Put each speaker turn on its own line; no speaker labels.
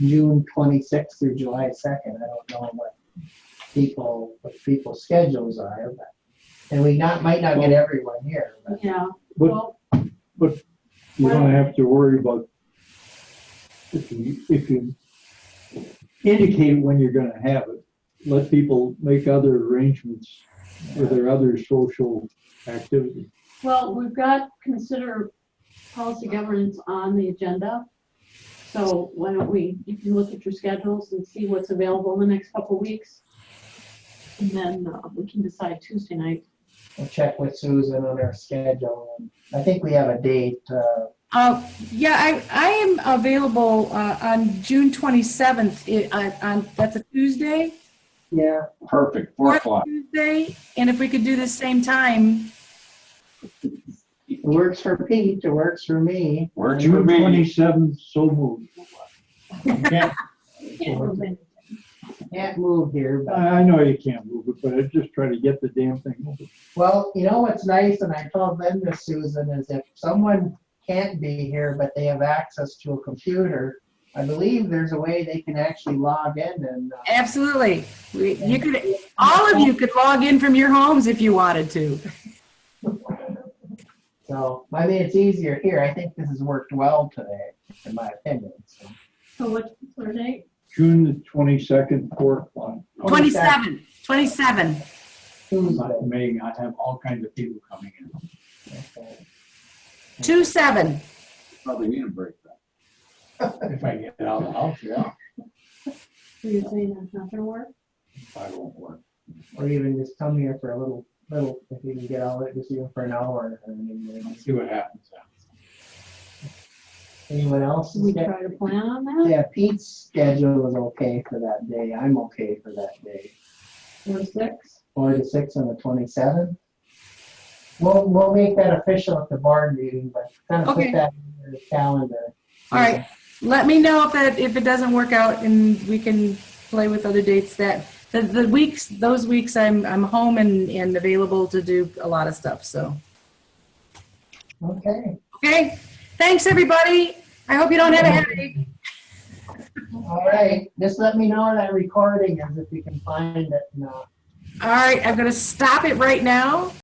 June twenty-sixth through July second. I don't know what people, what people's schedules are, but, and we not, might not get everyone here, but
Yeah,
But
well,
you don't have to worry about if you, if you indicate when you're gonna have it, let people make other arrangements for their other social activities.
well, we've got consider policy governance on the agenda. So why don't we, you can look at your schedules and see what's available in the next couple of weeks. And then uh, we can decide Tuesday night.
we'll check with Susan on her schedule. And I think we have a date, uh,
Uh, yeah, I, I am available, uh, on June twenty-seventh, on, on, that's a Tuesday?
yeah,
Perfect, four
Fourth
o'clock.
Tuesday, and if we could do the same time,
it works for Pete, it works for me.
Works for
June
me.
twenty-seventh, so moved.
Can't-
Can't move here, but,
I, I know you can't move it, but I just try to get the damn thing moving.
well, you know what's nice, and I told them this, Susan, is if someone can't be here, but they have access to a computer, I believe there's a way they can actually log in and, uh,
absolutely. We- You could, all of you could log in from your homes if you wanted to.
so, I mean, it's easier here. I think this has worked well today, in my opinion, so.
So what, what date?
June the twenty-second, four o'clock.
Twenty-seven, twenty-seven. Hmm.
Tuesday.
Not me, I have all kinds of people coming in.
okay.
Two seven.
Probably need a break then. If I get out of the house, yeah,
Are you saying that's not gonna work?
I won't work.
Or even just come here for a little, little, if you can get all it, just even for an hour. or anything.
Let's see what happens.
Anyone else?
Should we try to plan on that?
Yeah, Pete's schedule was okay for that day. I'm okay for that day.
Or six?
Four to six on the twenty-seventh. We'll, we'll make that official at the board meeting, but kind of put
Okay.
that in the calendar.
All right, let me know if that, if it doesn't work out and we can play with other dates that, the, the weeks, those weeks I'm, I'm home and, and available to do a lot of stuff, so.
Okay,
Okay, thanks, everybody. I hope you don't have a headache.
all right. Just let me know that recording is if you can find it. No.
All right, I'm gonna stop it right now.